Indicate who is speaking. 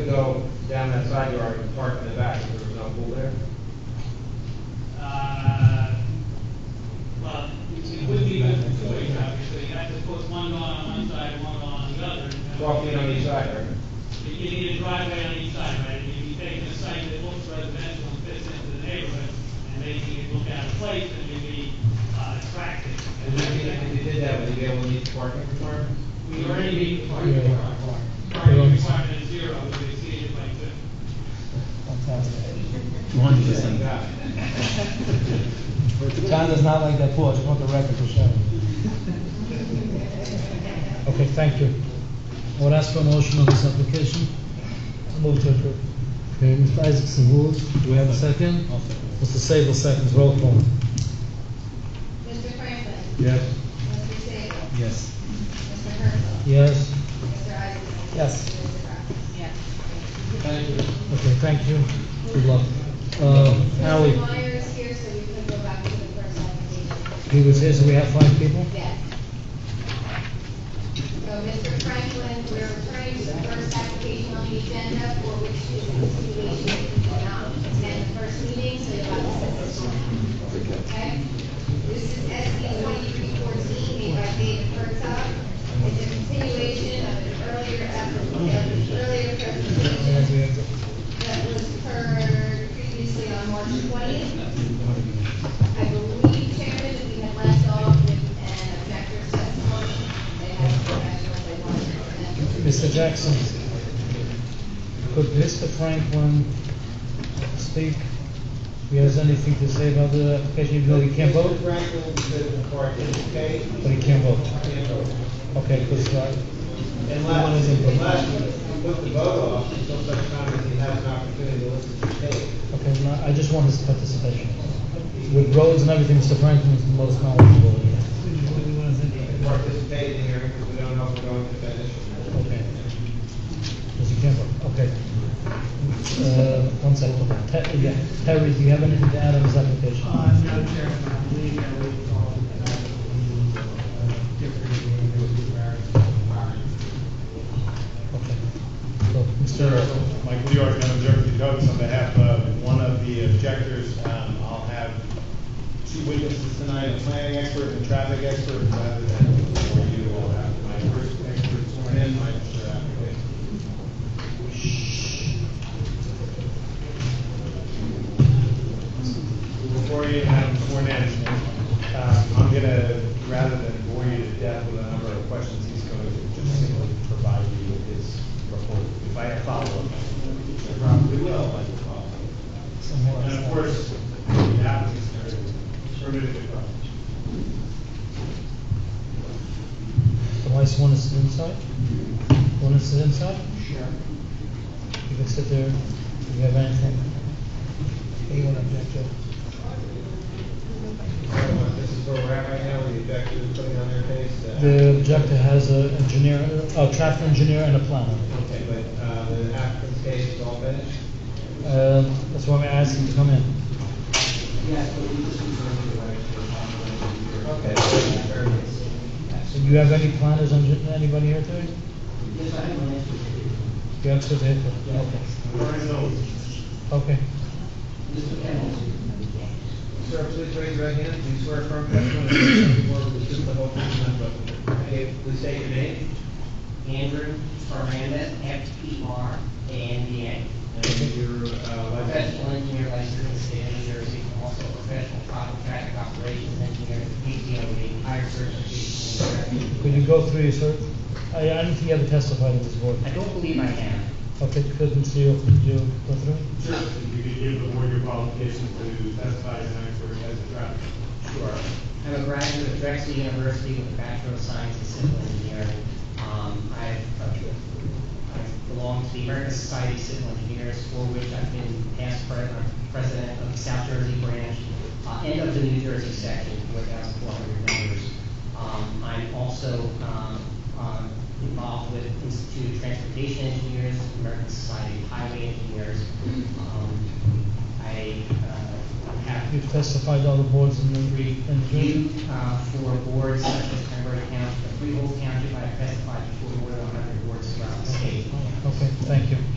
Speaker 1: go down that side yard and park in the back, if there was no pool there?
Speaker 2: Uh, Well, it would be good for two ways, obviously, you have to put one lawn on one side, one lawn on the other. and-
Speaker 1: Walk in on each side, right?
Speaker 2: You're getting a driveway on each side, right? If you take a site that looks residential and fits into the neighborhood, and making it look out of place, and maybe uh, attractive.
Speaker 1: And if you, if you did that, would you be able to meet the parking requirement?
Speaker 2: We already meet the parking requirement. Parking requirement is zero, we exceeded by two.
Speaker 3: Two hundred percent.
Speaker 1: Yeah.
Speaker 4: John does not like that pool, I just want the record to show.
Speaker 5: Okay, thank you. I would ask for a motion on this application.
Speaker 4: Move to approve.
Speaker 5: Okay, Mr. Isaacson moves. Do we have a second? Mr. Sable seconds, roll call.
Speaker 6: Mr. Franklin.
Speaker 3: Yes.
Speaker 6: Mr. Sable.
Speaker 3: Yes.
Speaker 6: Mr. Herzl.
Speaker 5: Yes.
Speaker 6: Mr. Eisenman.
Speaker 4: Yes.
Speaker 6: Mr. Brown. Yes.
Speaker 5: Okay, thank you. Good luck. Uh, Ally,
Speaker 6: Mr. Meyer is here, so you can go back to the first application.
Speaker 5: he was here, so we have five people?
Speaker 6: Yes. So, Mr. Franklin, we're returning to the first application on the agenda for which is continuation if you did not attend the first meeting, so you'll have to sit this one out. Okay? This is SB twenty-three fourteen, made by David Herzog. It's a continuation of an earlier, app- of an earlier presentation that was heard previously on March twentieth. I believe, Chairman, that we had left off with an objector's testimony. They had some action if they wanted to. amend.
Speaker 5: Mr. Jackson, could Mr. Franklin speak? He has anything to say about the application, even though he can't vote,
Speaker 1: Mr. Franklin said the parking is okay,
Speaker 5: but he can vote.
Speaker 1: can't vote.
Speaker 5: Okay, because, uh,
Speaker 1: Unless, unless you put the vote off until such time as he has an opportunity to listen to the tape.
Speaker 5: okay, no, I just want his participation. With roads and everything, Mr. Franklin is the most knowledgeable here.
Speaker 1: He can participate in the hearing because we don't know if we're going to finish.
Speaker 5: Okay. Because he can't vote, okay. Uh, one second, Te- yeah, Terry, do you have anything to add on his application?
Speaker 7: Uh, no, Chairman, I believe that we called it out the, uh, different,
Speaker 5: Okay. So,
Speaker 8: Sir,
Speaker 5: Mr.
Speaker 8: Michael York, Madam Clerk, the Douglas, on behalf of one of the objectors, um, I'll have two witnesses tonight, a planning expert and a traffic expert, rather than before you all have my first expert sworn in, uh, my first applicant. Before you have him sworn in, um, I'm gonna, rather than bore you to death with a number of questions, he's going to just simply provide you with his report. If I have follow-up, I probably will, uh, I will follow up.
Speaker 5: uh,
Speaker 8: And of course, the applicant's permitted to come.
Speaker 5: The vice one is inside? One is inside? Sure. You can sit there, if you have anything. Anyone object to?
Speaker 1: Uh, This is where we're at right now, where the objector is putting on their case. uh,
Speaker 5: The objector has a engineer, a traffic engineer and a planner.
Speaker 1: Okay, but, uh, the applicant's case is all finished?
Speaker 5: Uh, that's why I asked him to come in.
Speaker 7: Yes, but we just reserve the right to accommodate your-
Speaker 1: Okay. very good.
Speaker 5: So do you have any planners, engi- anybody here today?
Speaker 7: Yes, I have an answer for you.
Speaker 5: You have to say, okay,
Speaker 8: Very well.
Speaker 5: okay.
Speaker 7: Mr. Kennedy.
Speaker 1: Sir, please raise your right hand, do you swear affirm testimony that you give before we just the whole truth and nothing but the truth? Okay, please state your name.
Speaker 9: Andrew Fernandez, F P R A N D A.
Speaker 1: And your, uh, license.
Speaker 9: Professional engineer licensed in the state of New Jersey, also professional traffic traffic operations engineer, PTOE, higher certification. in
Speaker 5: Could you go through your cert? I, I don't think you ever testified in this board.
Speaker 9: I don't believe I am.
Speaker 5: Okay, couldn't see you, could you go through?
Speaker 8: Sure, if you could give the board your qualifications to testify as an expert as a traffic.
Speaker 9: Sure. I'm a graduate of Drexel University with a Bachelor of Science in Civil Engineering. Um, I've, uh, I belong to the American Society of Civil Engineers, for which I've been past pre- uh, president of the South Jersey branch, uh, and of the New Jersey section, four thousand four hundred members. Um, I'm also, um, um, involved with Institute of Transportation Engineers, American Society of Highway Engineers. Um, I, uh, have.
Speaker 5: You've testified to other boards in the, in
Speaker 9: You,
Speaker 5: Jersey?
Speaker 9: uh, for boards such as Pembroke County, Freehold County, I testified before more than 100 boards throughout the state.
Speaker 5: Okay, thank you.